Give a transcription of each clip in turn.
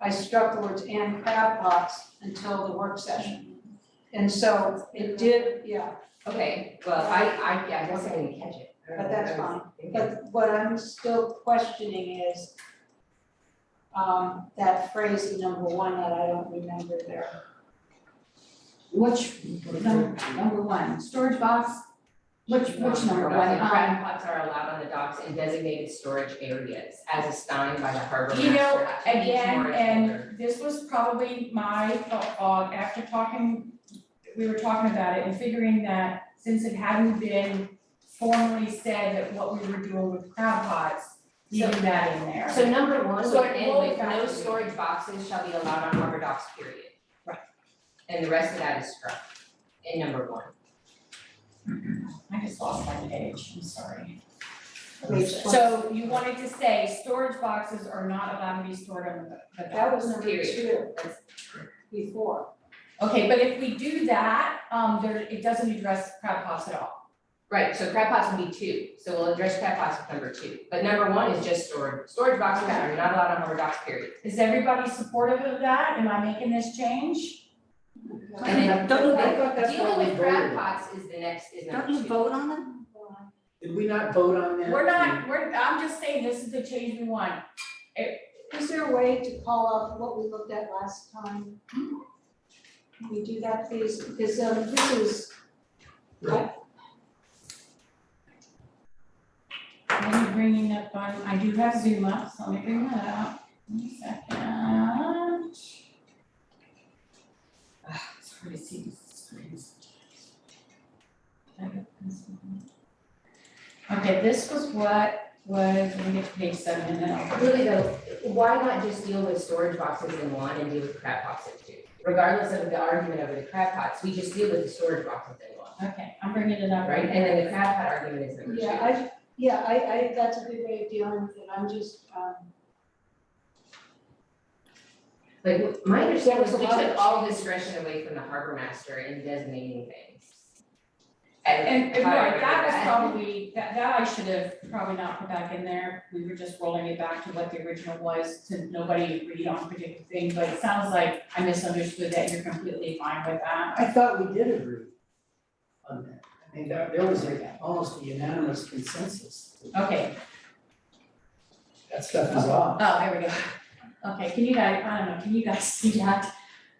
I struck the words and crab pots until the work session. And so it did, yeah, Okay, well, I, I, yeah, I guess I didn't catch it. I don't But know that's what I was thinking. but what I'm still questioning is um, that phrase in number one that I don't remember there. Which, num- number one, storage box, which, which number one? And Um, crab pots are allowed on the docks in designated storage areas as assigned by the harbor master. You know, to each again, mooring and holder. this was probably my thought, uh, after talking, we were talking about it and figuring that since it hadn't been formally said that what we were doing with crab pots, leaving that in there. So number one, So would it end will with no factor in. storage boxes shall be allowed on harbor docks, period. Right. And the rest of that is struck in number one. I just lost my page, I'm sorry. Um, Page So you wanted to say storage boxes are not allowed to be stored on the, the dock. That was number two That's- before. Okay, but if we do that, um, there, it doesn't address crab pots at all. Right, so crab pots would be two, so we'll address crab pots with number two, but number one is just storage, storage boxes are not allowed on harbor docks, period. Is everybody supportive of that? Am I making this change? And then Don't the- you, thought that's what dealing we with crab voted. pots is the next, is number don't two. you vote on them? Did we not vote on that? We're not, we're, I'm just saying this is the change we want. Is there a way to call up what we looked at last time? Can we do that, please? Because um, this is, Let me bring it up on, I do have Zoom up, so let me bring that up. One second. Ah, it's hard to see these screens. Okay, this was what was, let me get to page seven and then I'll. Really though, why not just deal with storage boxes in one and deal with crab pots in two? Regardless of the argument over the crab pots, we just deal with the storage boxes in one, Okay, I'm bringing it up. right? And then the crab pot argument is number two. yeah, I, yeah, I, I, that's a good way of dealing with it. I'm just, um, Like, my understanding is There was a we lot took of- all discretion away from the harbor master in designating things. And And, and how I right, remember that was probably, that, that I should have probably not put back in there, we were just rolling it back to what the original was, to nobody agreed on a particular thing, but it sounds like I misunderstood that you're completely fine with that. I thought we did agree on that. I mean, there, there was a- almost a unanimous consensus. that Okay, That stuff is off. oh, there we go, okay, can you guys, I don't know, can you guys see that?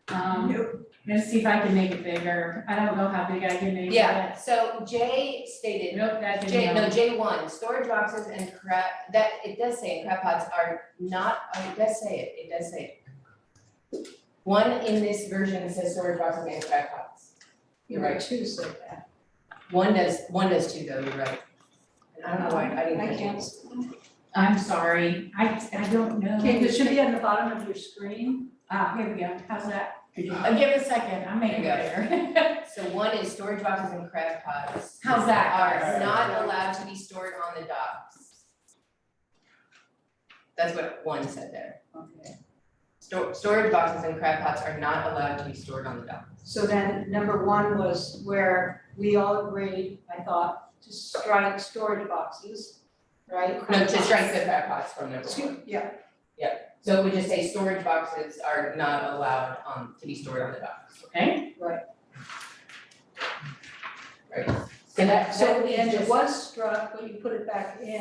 Um, I'm gonna see if I can make it bigger, I don't know how big I can make it. Yeah, so Jay stated, Nope, that didn't J, help. no, J one, storage boxes and crab, that, it does say it, crab pots are not, oh, it does say it, it does say it. One in this version says storage boxes and crab pots. You're number right, two said that. one does, one does too though, you're right. And I don't know why, I didn't. I catch it. can't. I'm sorry, I, I don't know. Okay, this should be on the bottom of your screen. Ah, here we go, how's that? Uh, give it a second, I'm making it bigger. So one is storage boxes and crab pots. How's that? Are not allowed to be stored on the docks. That's what one said there. Okay. Stor- storage boxes and crab pots are not allowed to be stored on the docks. So then, number one was where we all agreed, I thought, to strike storage boxes, right? No, to strike the crab pots from number one. Excuse- Yeah, So it would just say storage boxes are not allowed um to be stored on the docks. right. So that, So so in the we end, it just. was struck, but you put it back in,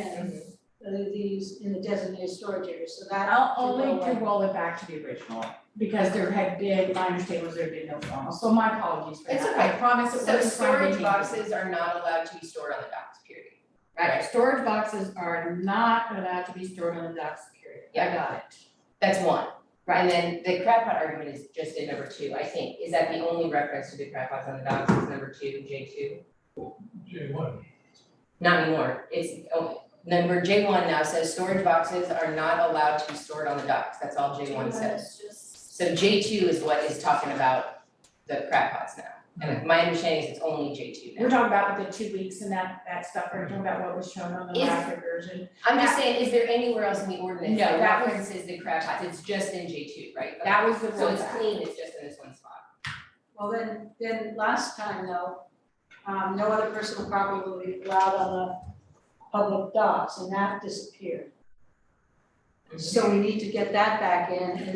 Mhm. uh, these, in the designated storage area, so that. I'll did go only away. to roll it back to the original, because there had been, my understanding was there had been no formal, so my apologies for that. It's okay. I promise it So wasn't trying to storage be- boxes are not allowed to be stored on the docks, period. Right, storage boxes are not allowed to be stored on the docks, period. I Yeah. got it. That's one. Right, and then the crab pot argument is just in number two, I think. Is that the only reference to the crab pots on the docks is number two, J two? J one. Not anymore, it's, oh, number J one now says storage boxes are not allowed to be stored on the docks, that's all J one says. So J two is what is talking about the crab pots now, and my understanding is it's only J two We're now. talking about the two weeks and that, that stuff, we're talking about what was shown on the Is- last version. I'm just saying, is there anywhere else in the ordinance No, that that was- references the crab pots, it's just in J two, right? Okay. That was the So it's rollback. clean, it's just in this one spot. Well, then, then last time though, um, no other personal property will be allowed on the public docks, and that disappeared. So we need to get that back in, and then